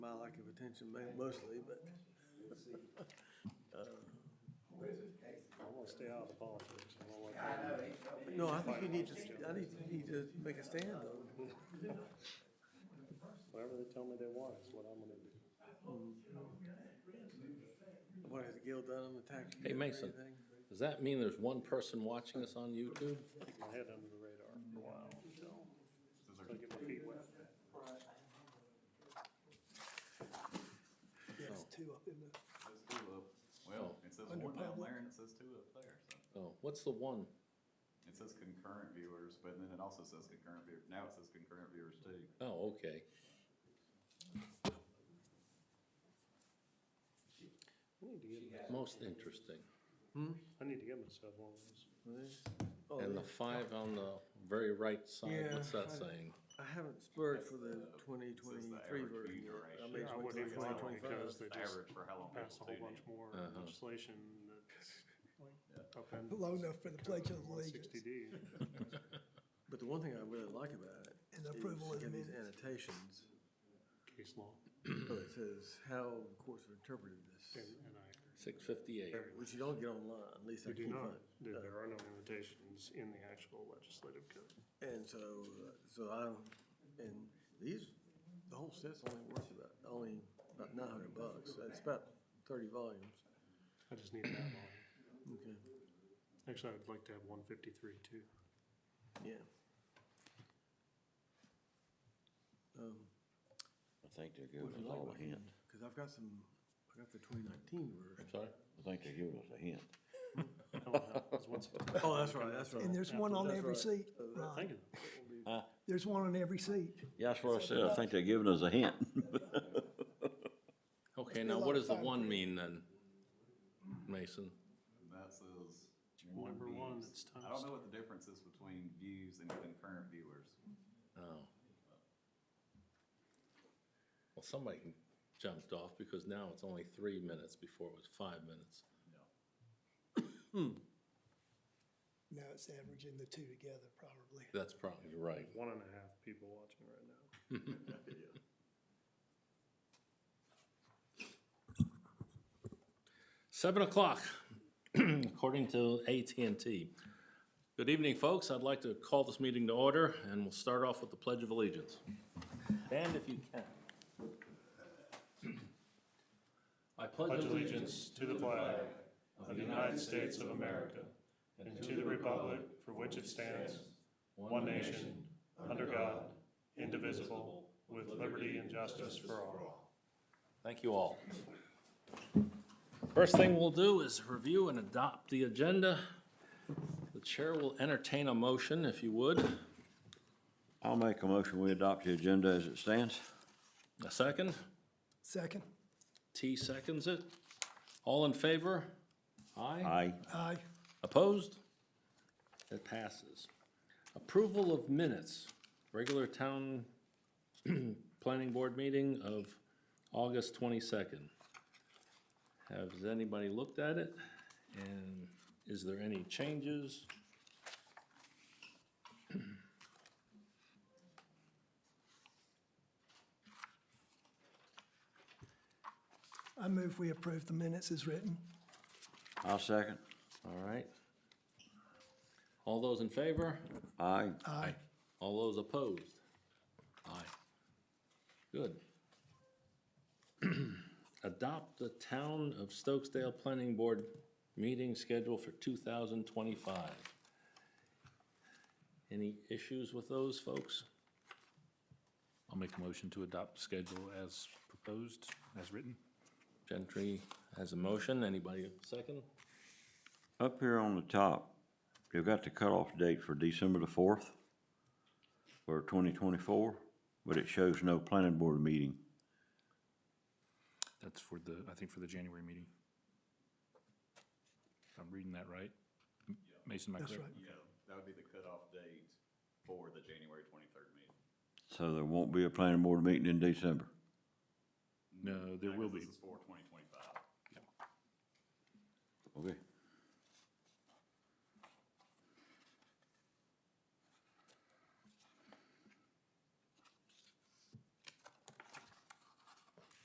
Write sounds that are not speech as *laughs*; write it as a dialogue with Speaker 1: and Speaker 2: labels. Speaker 1: lack of attention ma- mostly, but.
Speaker 2: I want to stay out of the politics. I don't like
Speaker 3: I know,
Speaker 2: that.
Speaker 3: he's
Speaker 1: No,
Speaker 3: so
Speaker 1: I think you need to, I need, you need to make a stand though.
Speaker 2: Whatever they tell me they want is what I'm going to do.
Speaker 1: What has Gil done on the tax?
Speaker 4: Hey, Mason. Does that mean there's one person watching us on YouTube?
Speaker 2: Keep my head under the radar for a while until I get my feet wet.
Speaker 4: Oh.
Speaker 5: two up in the,
Speaker 3: Says two up, well, it says
Speaker 5: Under
Speaker 3: one down
Speaker 5: public.
Speaker 3: there and it says two up there, so.
Speaker 4: Oh, what's the one?
Speaker 3: It says concurrent viewers, but then it also says concurrent view, now it says concurrent viewers too.
Speaker 4: Oh, okay.
Speaker 2: I need to get, my-
Speaker 4: Most interesting.
Speaker 2: I need to get myself one of those.
Speaker 1: Oh,
Speaker 4: And the five on the very right side,
Speaker 1: Yeah,
Speaker 4: what's that
Speaker 1: I-
Speaker 5: *laughs*
Speaker 4: saying?
Speaker 1: I haven't splurged for the twenty twenty-three
Speaker 3: average
Speaker 1: version
Speaker 3: view
Speaker 1: yet. I
Speaker 3: duration.
Speaker 1: may
Speaker 2: Yeah, I
Speaker 1: wait
Speaker 2: wouldn't
Speaker 1: till
Speaker 2: even want
Speaker 1: 2025.
Speaker 2: one because they just
Speaker 3: Average for how long
Speaker 2: pass a whole
Speaker 3: people tune in.
Speaker 2: bunch more
Speaker 4: Uh-huh.
Speaker 2: legislation that upends.
Speaker 5: low enough for the Pledge of Allegiance
Speaker 2: 160D.
Speaker 1: But the one thing I really like about it
Speaker 5: and
Speaker 1: is
Speaker 5: approval
Speaker 1: you
Speaker 5: of the
Speaker 1: get these
Speaker 5: minutes.
Speaker 1: annotations,
Speaker 2: Case law,
Speaker 1: where it says how the courts have interpreted
Speaker 2: and,
Speaker 1: this,
Speaker 2: and I,
Speaker 4: Six fifty-eight.
Speaker 1: which you don't get online, at least I
Speaker 2: we do
Speaker 1: can't
Speaker 2: not,
Speaker 1: find.
Speaker 2: there there are no limitations in the actual legislative code.
Speaker 1: And so, uh, so I, and these, the whole set's only worth about, only about nine hundred bucks. It's about thirty volumes.
Speaker 2: I just need that line.
Speaker 1: Okay.
Speaker 2: Actually, I'd like to have one fifty-three too.
Speaker 1: Yeah. Um,
Speaker 6: I think they're
Speaker 1: would
Speaker 6: giving
Speaker 1: you
Speaker 6: us
Speaker 1: like
Speaker 6: all
Speaker 1: my-
Speaker 6: a hint.
Speaker 1: cause I've got some, I got the twenty nineteen version.
Speaker 4: I'm sorry?
Speaker 6: I think they're giving us a hint.
Speaker 2: I don't know, 'cause once-
Speaker 1: Oh, that's right, that's right.
Speaker 5: And there's one on
Speaker 1: That's
Speaker 5: every
Speaker 1: right. Uh,
Speaker 5: seat,
Speaker 2: I'm
Speaker 5: Ron.
Speaker 2: thinking,
Speaker 5: There's one on every seat.
Speaker 6: Yeah, that's what I said. I think they're giving us a hint. *laughs*
Speaker 4: Okay,
Speaker 5: be
Speaker 4: now
Speaker 5: a lot
Speaker 4: what
Speaker 5: of
Speaker 4: does the
Speaker 5: fun
Speaker 4: one
Speaker 5: for you.
Speaker 4: mean then? Mason?
Speaker 3: That says.
Speaker 2: number one,
Speaker 3: views.
Speaker 2: it's
Speaker 3: I don't
Speaker 2: toast.
Speaker 3: know what the difference is between views and concurrent viewers.
Speaker 4: Oh. Well, somebody jumped off because now it's only three minutes before it was five minutes.
Speaker 5: Now it's averaging the two together probably.
Speaker 4: That's probably right.
Speaker 2: one and a half people watching right now.
Speaker 4: Seven o'clock, *clears throat* according to AT&T. Good evening, folks. I'd like to call this meeting to order, and we'll start off with the Pledge of Allegiance. Stand if you can. I
Speaker 2: pledge allegiance to the flag of the United States of America and to the republic for which it stands, one nation, under God, indivisible, with liberty and justice for all.
Speaker 4: Thank you all. First thing we'll do is review and adopt the agenda. The chair will entertain a motion, if you would.
Speaker 6: I'll make a motion. We adopt the agenda as it stands.
Speaker 4: A second?
Speaker 5: Second,
Speaker 4: T seconds it. All in favor? Aye?
Speaker 6: Aye.
Speaker 5: aye.
Speaker 4: Opposed? It passes. Approval of minutes, regular town *clears throat* planning board meeting of August twenty-second. Has anybody looked at it? And is there any changes?
Speaker 5: I move we approve the minutes as written.
Speaker 6: I'll second.
Speaker 4: All right. All those in favor?
Speaker 6: Aye.
Speaker 5: Aye.
Speaker 4: All those opposed? Aye. Good. *clears throat* Adopt the Town of Stokesdale Planning Board meeting schedule for two thousand twenty-five. Any issues with those, folks?
Speaker 7: I'll make a motion to adopt the schedule as proposed, as written.
Speaker 4: Gentry has a motion. Anybody second?
Speaker 6: Up here on the top, you've got the cutoff date for December the fourth for twenty twenty-four, but it shows no planning board meeting.
Speaker 7: That's for the, I think for the January meeting. If I'm reading that right. M- Mason, am I
Speaker 5: That's
Speaker 7: correct?
Speaker 5: right.
Speaker 3: Yeah, that would be the cutoff date for the January twenty-third meeting.
Speaker 6: So there won't be a planning board meeting in December.
Speaker 7: No, there
Speaker 3: No,
Speaker 7: will
Speaker 3: 'cause
Speaker 7: be.
Speaker 3: This is for twenty twenty-five.
Speaker 6: Okay.